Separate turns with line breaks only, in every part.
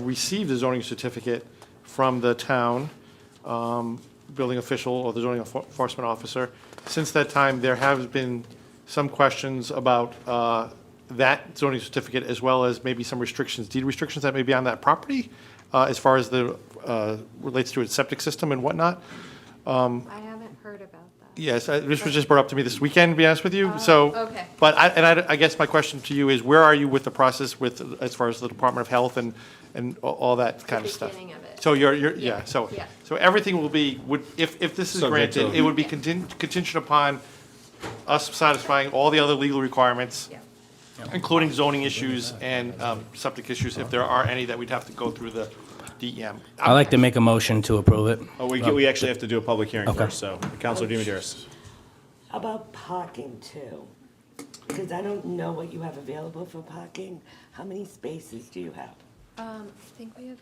received a zoning certificate from the town um, building official or the zoning enfor- enforcement officer. Since that time, there have been some questions about uh, that zoning certificate, as well as maybe some restrictions, deed restrictions that may be on that property, uh, as far as the, uh, relates to its septic system and whatnot.
I haven't heard about that.
Yes, I- this was just brought up to me this weekend, to be honest with you, so.
Oh, okay.
But I, and I, I guess my question to you is, where are you with the process with, as far as the Department of Health and, and a- all that kind of stuff?
beginning of it.
So you're, you're, yeah,
Yeah,
so,
yeah.
so everything will be, would, if, if this is
Subject to-
granted, it would be contin- contingent upon us satisfying all the other legal requirements,
Yeah.
including zoning issues and, um, septic issues, if there are any that we'd have to go through the E DEM.
I'd like to make a motion to approve it.
Oh, we, we actually have to do a public hearing
Okay.
first, so, Counselor Demidaris.
How About parking too, because I don't know what you have available for parking. How many spaces do you have?
Um, I think we have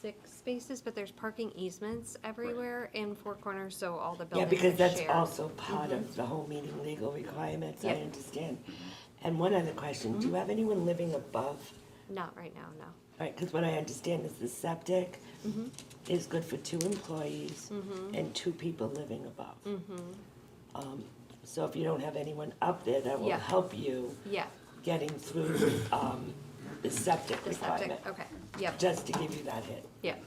six spaces, but there's parking easements everywhere in Four Corners, so all the buildings
Yeah,
are
because that's
shared. Mm-hmm.
also part of the whole meeting legal requirements, I
Yeah.
understand. And one other question,
Mm-hmm.
do you have anyone living above?
Not right now, no.
Right, because what I understand is the septic
Mm-hmm.
is good for two employees and two people living above.
Mm-hmm.
Um, So if you don't have anyone up there, that will
Yeah.
help you
Yeah,
getting through um, the septic
the septic,
requirement.
okay, yep,
just to give you that hit.
yep.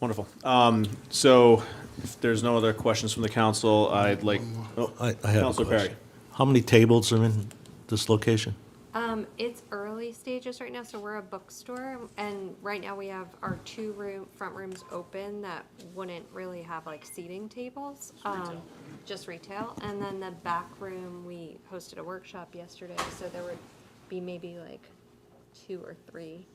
Wonderful. Um, so, if there's no other questions from the council, I'd like, oh,
I, I have a
Counselor Perry.
question. How many tables are in this location?
Um, it's early stages right now, so we're a bookstore, and right now we have our two room, front rooms open that wouldn't really have like seating tables. Um, just retail, and then the back room, we hosted a workshop yesterday, so there would be maybe like two or three.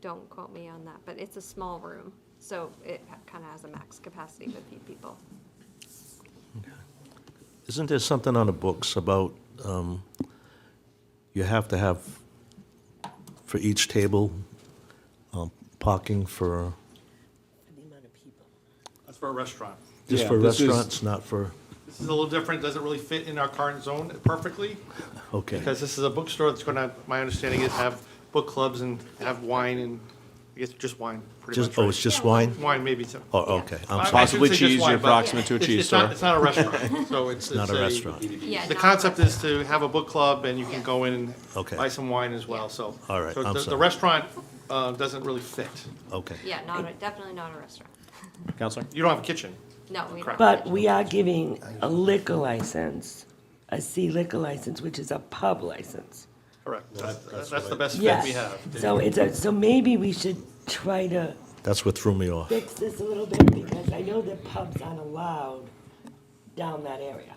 Don't quote me on that, but it's a small room, so it kinda has a max capacity of a few people.
Isn't there something on the books about, um, you have to have for each table, um, parking for,
The amount of people.
That's for a restaurant.
just
Yeah,
for
this is-
restaurants, not for,
This is a little different, doesn't really fit in our current zone perfectly,
okay.
Because this is a bookstore that's going to, my understanding is have book clubs and have wine and, I guess just wine, pretty much.
Just, oh,
right?
it's just wine?
Wine, maybe. some-
Oh,
I-
okay,
I
I'm sorry,
shouldn't
Possibly
say just
cheese,
wine,
you're
but
approximate to a
it's-
cheese
it's not-
store.
It's not a restaurant, so it's.
not
it's
a restaurant.
Yeah,
The
not
concept
like-
is to have a book club and you can go in and
Okay.
buy some wine as well, so.
All right,
so
I'm
the- The
sorry.
restaurant uh, doesn't really fit.
Okay.
Yeah, not, a- definitely not a restaurant,
Counselor?
You don't have a kitchen.
no, we don't.
Correct.
But we are giving a liquor license, a C liquor license, which is a pub license.
Correct. That's that's the best fit
Yes.
we have.
So it's a, so maybe we should try to
That's what threw me off.
fix this a little bit because I know that pubs aren't allowed down that area.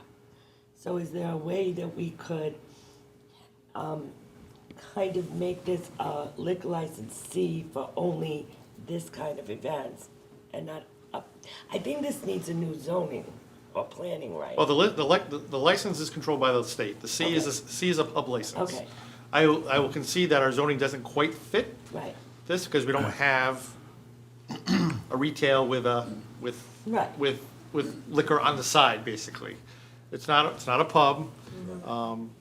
So is there a way that we could, um, kind of make this a liquor license C for only this kind of events and not up? I think this needs a new zoning or planning, right?
Well, Oh, the, li- the, lic- the license is controlled by the state. The C is, a- C is a pub license.
Okay.
I, will- I will concede that our zoning doesn't quite fit
Right,
this because we don't have a retail with a, with,
Right.
with, with liquor on the side, basically. It's not, it's not a pub.
Mm-hmm.
Um,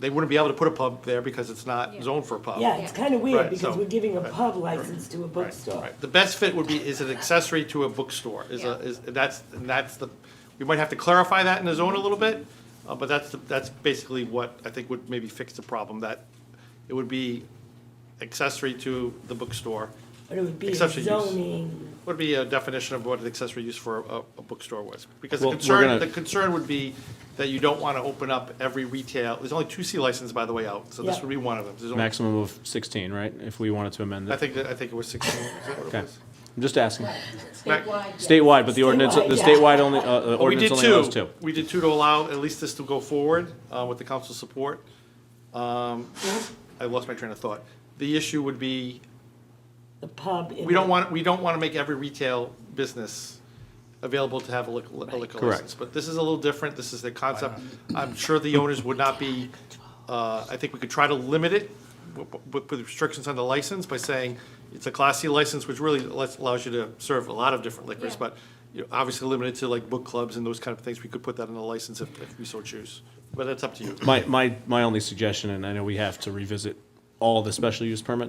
They wouldn't be able to put a pub there because it's not
Yeah.
zoned for a pub.
yeah, it's
Yeah.
kind of
Right,
weird because
so-
we're giving a
right,
pub license to a
Right,
bookstore.
right. The best fit would be, is an accessory to a bookstore, is a,
Yeah.
is, that's, and that's the, we might have to clarify that in the zone a little bit, uh, but that's, the- that's basically what I think would maybe fix the problem, that it would be accessory to the bookstore.
But it would be
Accessory use.
zoning,
Would be a definition of what an accessory use for a, a bookstore was. Because the
Well, we're
concern,
gonna-
the concern would be that you don't wanna open up every retail, there's only two C licenses, by the way, out, so this
Yeah.
would be one of them. There's only-
Maximum of 16, right? If we wanted to amend
I
that.
think, that- I think it was sixteen, is that what it
Okay.
was?
I'm just asking.
Statewide,
Statewide, but the ordinance, the
yeah.
statewide only, uh, the
Well, we did
ordinance only allows two.
We did two to allow at least this to go forward uh, with the council's support. Um, I lost my train of thought. The issue would be,
the pub. in
we don't
the-
want, we don't want to make every retail business available to have a liquor a liquor
Correct.
license. But this is a little different, this is the concept. I'm sure the owners would not be, uh, I think we could try to limit it wi- wi- with restrictions on the license by saying it's a Class C license, which really lets- allows you to serve a lot of different liquors,
Yeah.
but you know, obviously limited to like book clubs and those kind of things. We could put that in the license if if we so choose, but that's up to you.
My, my, my only suggestion, and I know we have to revisit all the special use permit